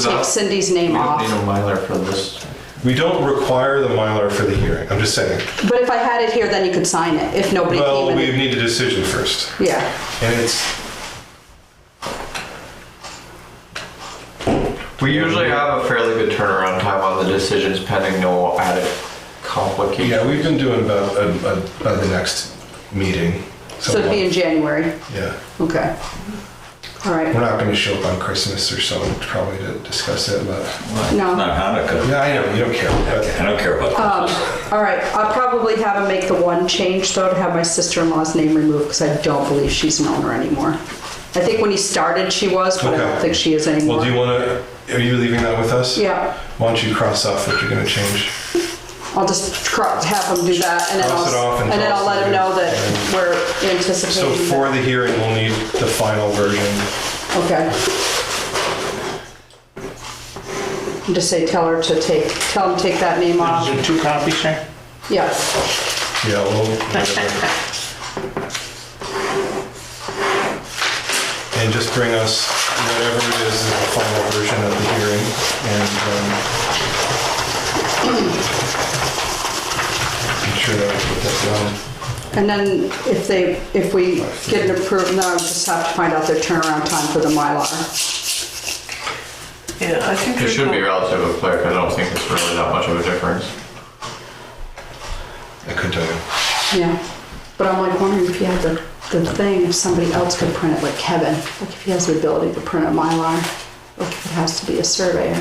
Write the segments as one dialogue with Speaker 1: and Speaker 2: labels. Speaker 1: take Cindy's name
Speaker 2: don't
Speaker 1: off.
Speaker 2: need a Mylar for this.
Speaker 3: We don't require the Mylar for the hearing, I'm just saying.
Speaker 1: But if I had it here, then you could sign it, if nobody
Speaker 3: Well,
Speaker 1: came
Speaker 3: we
Speaker 1: in.
Speaker 3: need a decision first,
Speaker 1: Yeah,
Speaker 3: and it's,
Speaker 2: We usually have a fairly good turnaround time on the decisions pending no added
Speaker 3: yeah,
Speaker 2: complication.
Speaker 3: we've been doing about, uh, uh, by the next meeting.
Speaker 1: so it'd be in January,
Speaker 3: Yeah,
Speaker 1: okay. All right,
Speaker 3: we're not gonna show up on Christmas or so, probably to discuss it, but,
Speaker 1: no,
Speaker 4: Not Hanukkah.
Speaker 3: yeah, I know, you don't care,
Speaker 4: I
Speaker 3: but,
Speaker 4: don't care about
Speaker 1: um,
Speaker 4: Christmas.
Speaker 1: all right, I'll probably have him make the one change, though, to have my sister-in-law's name removed, because I don't believe she's an owner anymore. I think when he started, she was, but I don't
Speaker 3: Okay.
Speaker 1: think she is anymore.
Speaker 3: well, do you wanna, are you leaving that with us?
Speaker 1: Yeah,
Speaker 3: Why don't you cross off what you're gonna change?
Speaker 1: I'll just cro- have him do that, and then
Speaker 3: Cross it
Speaker 1: I'll,
Speaker 3: off and
Speaker 1: and then
Speaker 3: cross
Speaker 1: I'll let
Speaker 3: it
Speaker 1: him know
Speaker 3: out.
Speaker 1: that we're
Speaker 3: So
Speaker 1: anticipating.
Speaker 3: for
Speaker 1: that-
Speaker 3: the hearing, we'll need the final version.
Speaker 1: Okay. And Just say, tell her to take, tell him to take that name
Speaker 5: Is
Speaker 1: off.
Speaker 5: there two copies, sir?
Speaker 1: Yeah,
Speaker 3: Yeah, well, whatever. And just bring us whatever it is, the final version of the hearing, and, um, I'm sure that we put that down.
Speaker 1: and then if they, if we get an approved, no, I just have to find out their turnaround time for the Mylar.
Speaker 5: Yeah, I think.
Speaker 2: It should be relatively quick, I don't think it's really that much of a difference.
Speaker 3: I couldn't tell you.
Speaker 1: Yeah, but I'm like wondering if you had the, the thing, if somebody else could print it, like Kevin, like if he has the ability to print a Mylar, like if it has to be a surveyor.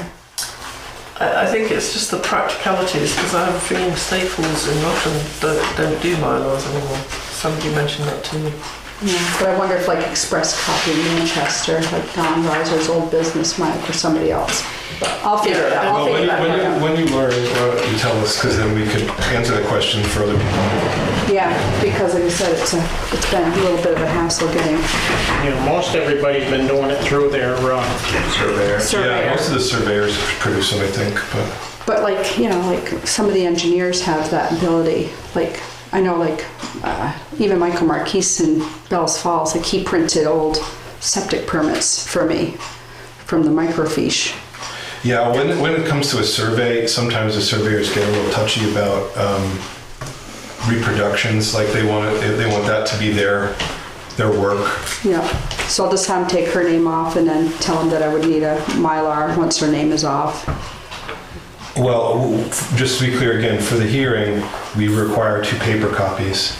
Speaker 6: I, I think it's just the practicalities because I'm feeling Staples in Rockland don't, don't do mylars anymore. Somebody mentioned that to me.
Speaker 1: Yeah, but I wonder if like Express Copy in Manchester, like Don Reiser's old business might, or somebody else. But I'll figure it out. I'll
Speaker 3: Well,
Speaker 1: figure
Speaker 3: when
Speaker 1: it
Speaker 3: you,
Speaker 1: out.
Speaker 3: when you, when you learn, why don't you tell us, because then we could answer the question for other people.
Speaker 1: Yeah, because like I said, it's a, it's been a little bit of a hassle getting
Speaker 5: You know, most everybody's been doing it through their, uh,
Speaker 3: Surveyor. Yeah,
Speaker 1: Surveyor.
Speaker 3: most of the surveyors produce them, I think, but.
Speaker 1: But like, you know, like some of the engineers have that ability. Like, I know like uh, even Michael Marquise in Bells Falls, like he printed old septic permits for me from the microfiche.
Speaker 3: Yeah, when, when it comes to a survey, sometimes the surveyors get a little touchy about um, reproductions, like they want it, they want that to be their their work.
Speaker 1: Yeah, so I'll just have him take her name off and then tell him that I would need a Mylar once her name is off.
Speaker 3: Well, w- just to be clear again, for the hearing, we require two paper copies.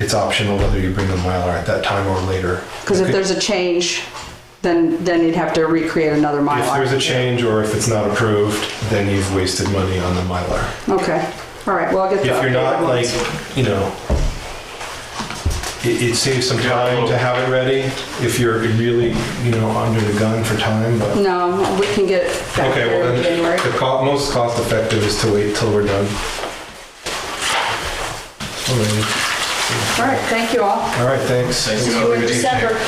Speaker 3: It's optional whether you bring the Mylar at that time or later.
Speaker 1: Because if there's a change, then, then you'd have to recreate another
Speaker 3: If
Speaker 1: Mylar.
Speaker 3: there's a change or if it's not approved, then you've wasted money on the Mylar.
Speaker 1: Okay, all right, well, I'll get the
Speaker 3: If you're not
Speaker 1: updated
Speaker 3: like,
Speaker 1: ones.
Speaker 3: you know, it, it saves some time to have it ready if you're really, you know, under the gun for time, but.
Speaker 1: No, we can get it back
Speaker 3: Okay,
Speaker 1: there
Speaker 3: well
Speaker 1: in January.
Speaker 3: then, the co- most cost effective is to wait till we're done. All right,
Speaker 1: All right, thank you all.
Speaker 3: All right, thanks.
Speaker 2: Thank
Speaker 1: See
Speaker 2: you.
Speaker 1: you in December.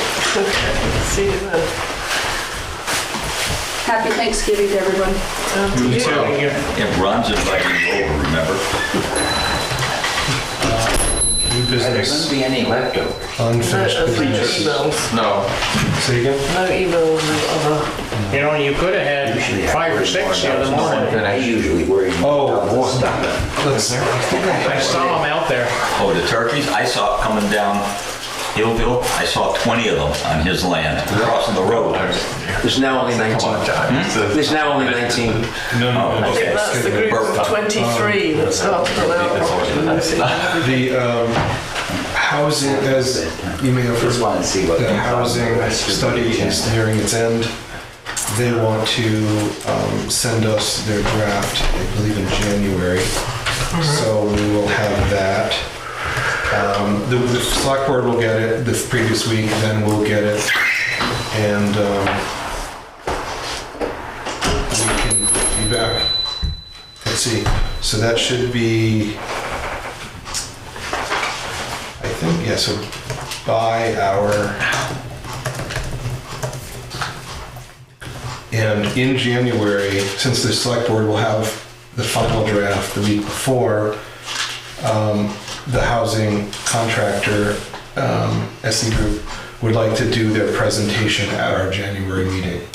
Speaker 6: See uh, you then.
Speaker 1: Happy Thanksgiving to everyone.
Speaker 6: Um,
Speaker 2: You too.
Speaker 5: you
Speaker 4: Yeah, Ron's inviting you over, remember?
Speaker 3: New business,
Speaker 7: be any leftover.
Speaker 6: no,
Speaker 3: unfinished
Speaker 6: uh, no
Speaker 3: business.
Speaker 6: emails.
Speaker 2: No,
Speaker 3: Say again?
Speaker 6: No emails and other.
Speaker 5: You know, you could have
Speaker 7: Usually
Speaker 5: had
Speaker 7: I
Speaker 5: five or
Speaker 7: worry
Speaker 5: six the
Speaker 7: more
Speaker 5: other
Speaker 7: about
Speaker 5: morning.
Speaker 7: someone than I usually worry
Speaker 3: Oh,
Speaker 7: about
Speaker 3: boy.
Speaker 7: this stuff.
Speaker 3: Let's,
Speaker 5: I saw them out there.
Speaker 4: Oh, the turkeys, I saw it coming down Hillville, I saw 20 of them on his land, crossing the road.
Speaker 7: There's now only 19.
Speaker 3: Hmm?
Speaker 7: There's now only 19.
Speaker 3: no, no, no.
Speaker 4: Okay.
Speaker 6: That's the group of 23 that's after an hour.
Speaker 3: The, um, housing, as you may have
Speaker 7: Just
Speaker 3: heard,
Speaker 7: wanted to see what.
Speaker 3: the housing study is nearing its end. They want to um, send us their draft, I believe in January. So we will have that. Um, The the select board will get it this previous week, then we'll get it. And um, we can be back. Let's see, so that should be, I think, yeah, so by our. And in January, since the select board will have the final draft the week before, um, the housing contractor, um, SE Group, would like to do their presentation at our January meeting.